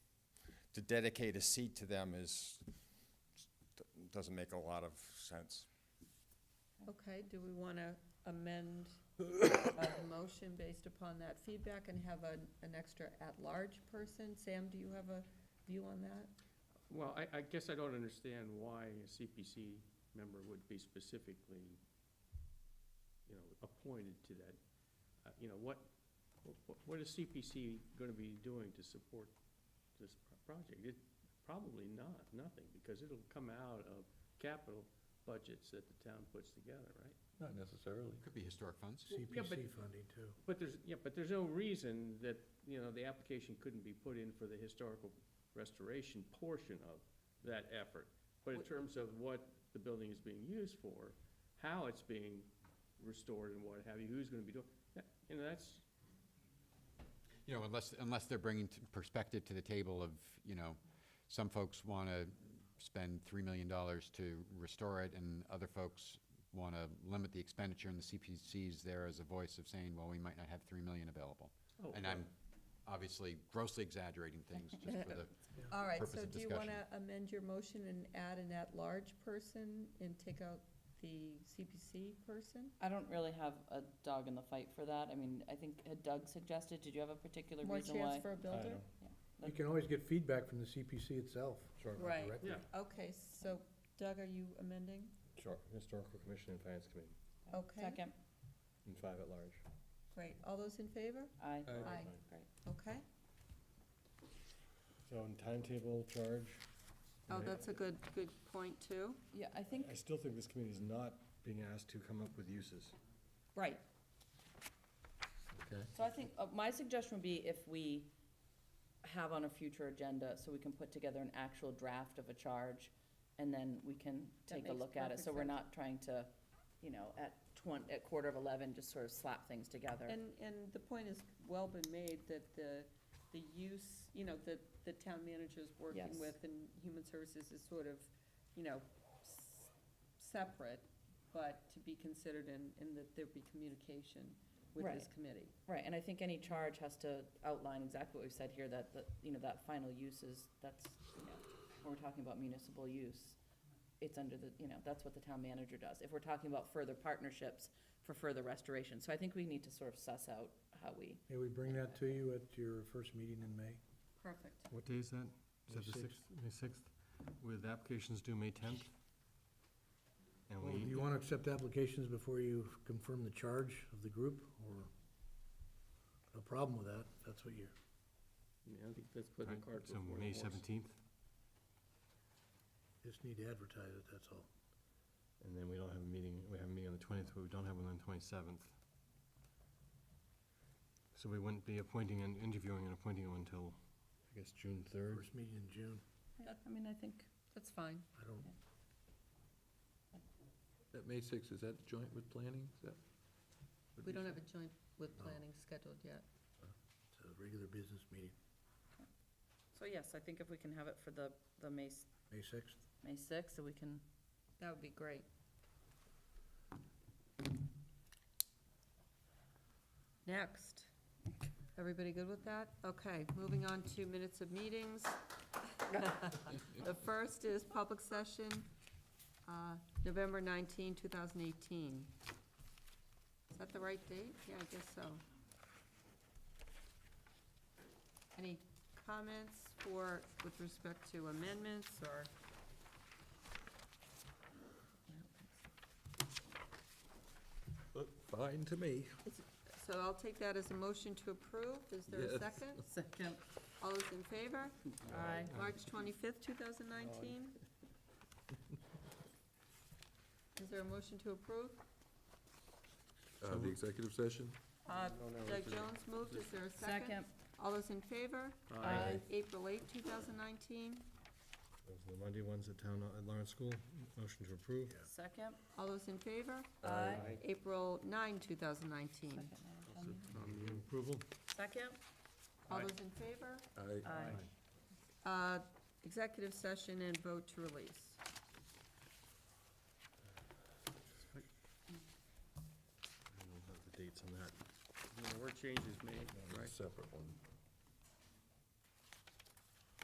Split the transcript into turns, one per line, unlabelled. to dedicate a seat to them is, doesn't make a lot of sense.
Okay, do we want to amend the motion based upon that feedback and have an, an extra at-large person? Sam, do you have a view on that?
Well, I, I guess I don't understand why a CPC member would be specifically, you know, appointed to that. Uh, You know, what, what- what is CPC gonna be doing to support this pro- project? It, probably not, nothing, because it'll come out of capital budgets that the town puts together, right?
Not necessarily.
Could be historic funds.
Yeah, but-
CPC funding too.
But there's, yeah, but there's no reason that, you know, the application couldn't be put in for the historical restoration portion of that effort. But in terms of what the building is being used for, how it's being restored and what have you, who's gonna be doing, that, you know, that's,
You know, unless, unless they're bringing t- perspective to the table of, you know, some folks want to spend $3 million to restore it, and other folks want to limit the expenditure, and the CPC's there as a voice of saying, well, we might not have 3 million available.
oh.
And I'm obviously grossly exaggerating things just for the,
All right,
Purpose
so
of
do you want
discussion.
to amend your motion and add an at-large person and take out the CPC person?
I don't really have a dog in the fight for that. I mean, I think had Doug suggested, did you have a particular
More
reason
chance
why?
for a builder?
You can always get feedback from the CPC itself.
Sure,
Right.
directly.
Yeah.
Okay, so Doug, are you amending?
sure. Historical Commission and Finance Committee,
Okay.
Second,
and five at large.
Great. All those in favor?
aye.
Uh,
Aye.
Aye.
Great.
Okay.
So in timetable, charge,
Oh,
Yeah.
that's a good, good point, too.
Yeah, I think,
I still think this committee is not being asked to come up with uses.
right.
Okay.
So I think, uh, my suggestion would be if we have on a future agenda, so we can put together an actual draft of a charge, and then we can
That
take a
makes
look at it,
perfect
so we're
sense.
not trying to, you know, at twen- at quarter of eleven, just sort of slap things together.
And, and the point has well been made that the, the use, you know, that the town manager's working
Yes.
with and human services is sort of, you know, s- separate, but to be considered in, in that there be communication with this
Right.
committee.
Right, and I think any charge has to outline exactly what we've said here, that, that, you know, that final use is, that's, you know, when we're talking about municipal use, it's under the, you know, that's what the town manager does. If we're talking about further partnerships for further restoration, so I think we need to sort of suss out how we,
May we bring that to you at your first meeting in May?
Perfect.
What day is that? Is
May
that the
sixth.
sixth, May sixth, with applications due May tenth? And
Well, Do
we,
you want to accept applications before you confirm the charge of the group, or no problem with that? if That's what you're,
Yeah, I think that's putting the cart
so
before the
May
horse.
seventeenth?
just need to advertise it, that's all.
And then we don't have a meeting, we have a meeting on the twentieth, but we don't have one on the twenty-seventh. So we wouldn't be appointing and interviewing and appointing one until. I guess June third.
First meeting in June,
I mean, I think,
That's fine.
I don't,
That May sixth, is that joint with planning? Is that? what
We
you
don't
said?
have a joint with
No.
planning scheduled yet.
it's a regular business meeting,
so yes, I think if we can have it for the, the May, s-
May sixth.
May sixth, so we can,
That would be great. Next. Everybody good with that? Okay, moving on to minutes of meetings. The first is public session, uh, November 19, 2018. Is that the right date? Yeah, I guess so. Any comments for, with respect to amendments or?
Look Fine to me.
So I'll take that as a motion to approve. Is there a
Yes.
second?
second,
All those in favor?
aye.
March twenty-fifth, two thousand nineteen? Is there a motion to approve?
Uh, the executive session?
Uh, Doug Jones moved. Is there a second?
Second,
All those in favor?
aye.
April eighth, two thousand nineteen?
Those are the Monday ones at town, at Lawrence School, motion to approve.
Second,
All those in favor?
aye.
April nine, two thousand nineteen?
Second, now, Tony.
Move Approval?
Second,
All those in favor?
Aye.
aye.
Uh, executive session and vote to release.
I don't have the dates on that.
No, where changes made, right?
Separate one.